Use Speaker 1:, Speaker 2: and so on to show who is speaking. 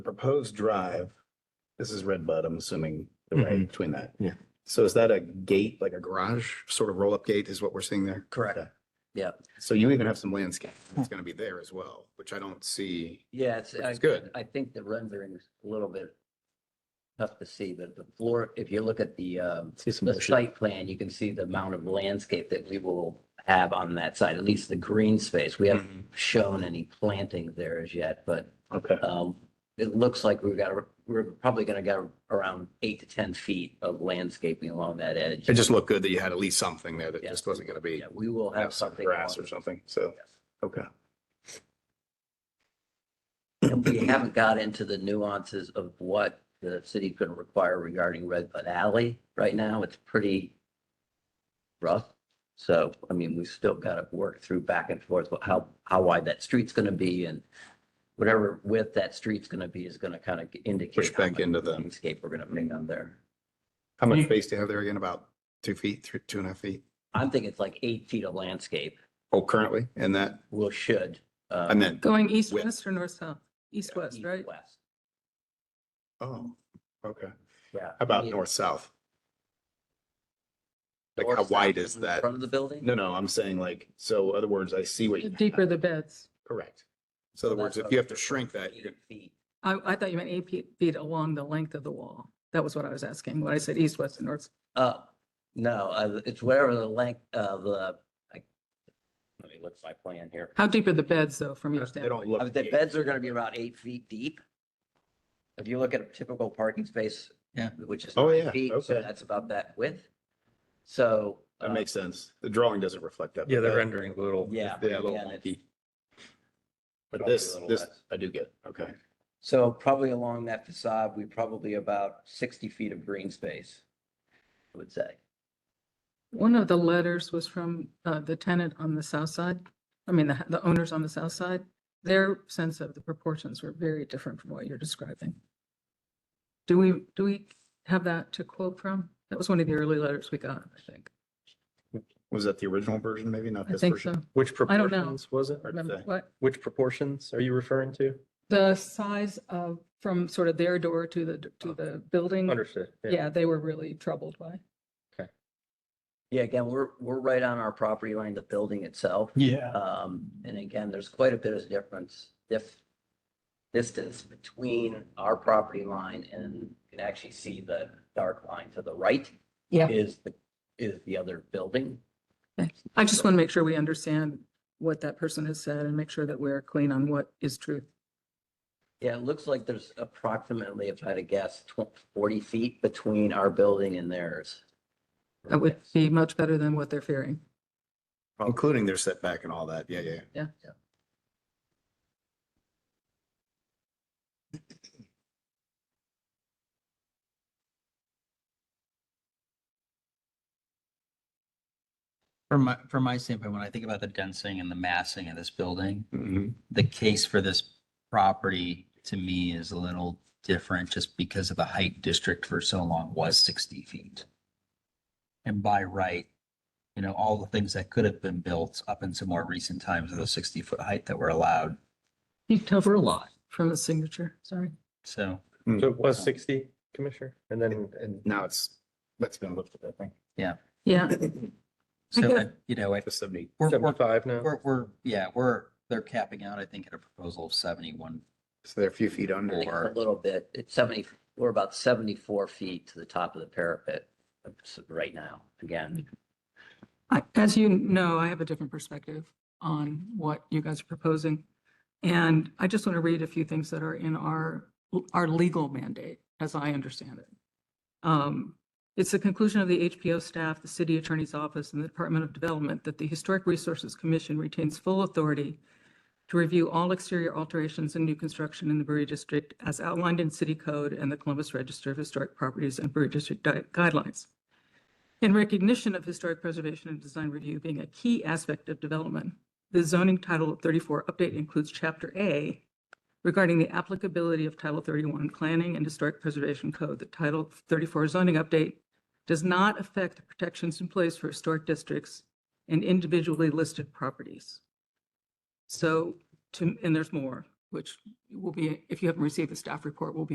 Speaker 1: proposed drive, this is Red Bud, I'm assuming, right
Speaker 2: Mhm.
Speaker 1: between that.
Speaker 2: Yeah.
Speaker 1: So is that a gate, like a garage, sort of roll-up gate is what we're seeing there?
Speaker 3: Correct.
Speaker 1: Okay.
Speaker 3: Yeah.
Speaker 1: So you even have some landscape that's going to be there as well, which I don't see.
Speaker 3: Yeah, it's,
Speaker 1: Which
Speaker 3: I,
Speaker 1: is good.
Speaker 3: I think the rendering is a little bit tough to see, but the floor, if you look at the, um,
Speaker 2: See some
Speaker 3: the
Speaker 2: motion.
Speaker 3: site plan, you can see the amount of landscape that we will have on that side, at least the green space. We haven't
Speaker 1: Hmm.
Speaker 3: shown any planting there as yet, but,
Speaker 1: Mm-hmm. Okay.
Speaker 3: um, it looks like we've got, we're probably gonna get around eight to 10 feet of landscaping along that edge.
Speaker 1: It just looked good that you had at least something there that
Speaker 3: Yeah.
Speaker 1: just wasn't going to be
Speaker 3: Yeah, we will
Speaker 1: have
Speaker 3: have
Speaker 1: some
Speaker 3: something.
Speaker 1: grass
Speaker 3: along-
Speaker 1: or something. So,
Speaker 3: Yes.
Speaker 1: okay.
Speaker 3: And we haven't got into the nuances of what the city's going to require regarding Red Bud Alley. Right now, it's pretty rough. So, I mean, we've still got to work through back and forth, what- how, how wide that street's going to be and whatever width that street's going to be is going to kind of indicate.
Speaker 1: Push
Speaker 3: how
Speaker 1: back
Speaker 3: much
Speaker 1: into the-
Speaker 3: Landscape we're going to make on there.
Speaker 1: How
Speaker 2: You-
Speaker 1: much space do you have there again? About two feet, three, two and a half feet?
Speaker 3: I'm thinking it's like eight feet of landscape.
Speaker 1: Oh, currently in that,
Speaker 3: We'll should. uh,
Speaker 1: I meant,
Speaker 4: Going east,
Speaker 1: West.
Speaker 4: west or north, south? East, west,
Speaker 3: east,
Speaker 4: right?
Speaker 3: West,
Speaker 1: oh, okay. How
Speaker 3: yeah.
Speaker 1: about
Speaker 3: Uh, Yeah.
Speaker 1: north, south? Like how
Speaker 3: North, south,
Speaker 1: wide is
Speaker 3: in
Speaker 1: that?
Speaker 3: Front of the building?
Speaker 1: No, no, I'm saying like, so other words, I see what.
Speaker 4: The
Speaker 1: you-
Speaker 4: deeper the beds.
Speaker 1: Correct. So other words, if you have to shrink that, you're
Speaker 3: Eight
Speaker 1: gonna,
Speaker 3: feet.
Speaker 4: I, I thought you meant eight feet- feet along the length of the wall. That was what I was asking. When I said east, west and north,
Speaker 3: Uh, no, uh, it's whatever the length of the, I, let me look at my plan here.
Speaker 4: how deep are the beds though from your
Speaker 1: they
Speaker 4: standpoint?
Speaker 1: don't look.
Speaker 3: Uh, The beds are gonna be about eight feet deep. If you look at a typical parking space.
Speaker 2: Yeah.
Speaker 3: Which is.
Speaker 1: Oh,
Speaker 3: nine
Speaker 1: yeah,
Speaker 3: feet, so
Speaker 1: okay.
Speaker 3: That's about that width. So.
Speaker 1: That
Speaker 3: uh,
Speaker 1: makes sense. The drawing doesn't reflect that.
Speaker 2: Yeah,
Speaker 1: but
Speaker 2: the
Speaker 1: that-
Speaker 2: rendering a little.
Speaker 3: Yeah.
Speaker 1: Yeah, a little
Speaker 3: yeah, that's-
Speaker 1: wonky. But
Speaker 3: probably a
Speaker 1: this,
Speaker 3: little
Speaker 1: this,
Speaker 3: less.
Speaker 1: I do get, okay.
Speaker 3: So probably along that facade, we probably about sixty feet of green space, I would say.
Speaker 4: One of the letters was from uh, the tenant on the south side. I mean, the, the owners on the south side. Their sense of the proportions were very different from what you're describing. Do we, do we have that to quote from? That was one of the early letters we got, I think.
Speaker 1: Was that the original version, maybe not
Speaker 4: I
Speaker 1: this
Speaker 4: think
Speaker 1: version?
Speaker 4: so.
Speaker 2: Which
Speaker 4: I don't know.
Speaker 2: proportions was it?
Speaker 1: Hard to
Speaker 4: Remember
Speaker 1: say.
Speaker 4: what?
Speaker 2: Which proportions are you referring to?
Speaker 4: The size of, from sort of their door to the, to
Speaker 5: Oh.
Speaker 4: the building,
Speaker 2: Understood.
Speaker 4: yeah, they were really troubled by.
Speaker 3: Yeah, again, we're, we're right on our property line, the building itself.
Speaker 2: Yeah.
Speaker 3: Um, and again, there's quite a bit of difference, if distance between our property line and you can actually see the dark line to the right.
Speaker 4: Yeah.
Speaker 3: Is the, is the other building.
Speaker 4: I just want to make sure we understand what that person has said and make sure that we're clean on what is true.
Speaker 3: Yeah, it looks like there's approximately, if I had to guess, tw- forty feet between our building and theirs.
Speaker 4: That would be much better than what they're fearing.
Speaker 1: Oh, Including their setback and all that, yeah, yeah.
Speaker 5: From my, from my standpoint, when I think about the densing and the massing of this building,
Speaker 1: Mhm.
Speaker 5: the case for this property to me is a little different just because of the height district for so long was sixty feet. And by right, you know, all the things that could have been built up into more recent times of the sixty foot height that were allowed.
Speaker 4: You cover
Speaker 5: For a lot.
Speaker 4: From the signature, sorry.
Speaker 5: So,
Speaker 2: So it was sixty, Commissioner, and then, and
Speaker 1: Now it's, that's been lifted, I think,
Speaker 4: Yeah,
Speaker 5: so,
Speaker 4: guess-
Speaker 5: I- you know, I-
Speaker 1: to seventy.
Speaker 5: we're, we're,
Speaker 2: seventy-five now?
Speaker 5: we're, we're, yeah, we're, they're capping out, I think, at a proposal of seventy-one.
Speaker 1: So they're a few feet
Speaker 3: I think
Speaker 1: under.
Speaker 3: it's
Speaker 5: Or-
Speaker 3: A little bit, it's seventy, we're about seventy-four feet to the top of the parapet uh, right now, again.
Speaker 4: I, as you know, I have a different perspective on what you guys are proposing. And I just want to read a few things that are in our, our legal mandate, as I understand it. Um, It's the conclusion of the HPO staff, the city attorney's office, and the Department of Development that the Historic Resources Commission retains full authority to review all exterior alterations and new construction in the Brewery District as outlined in city code and the Columbus Register of Historic Properties and Brewery District Di- guidelines. In recognition of historic preservation and design review being a key aspect of development, the zoning Title 34 update includes Chapter A regarding the applicability of Title 31 Planning and Historic Preservation Code. The Title 34 zoning update does not affect the protections in place for historic districts and individually listed properties. So, to, and there's more. which will be, if you haven't received the staff report, will be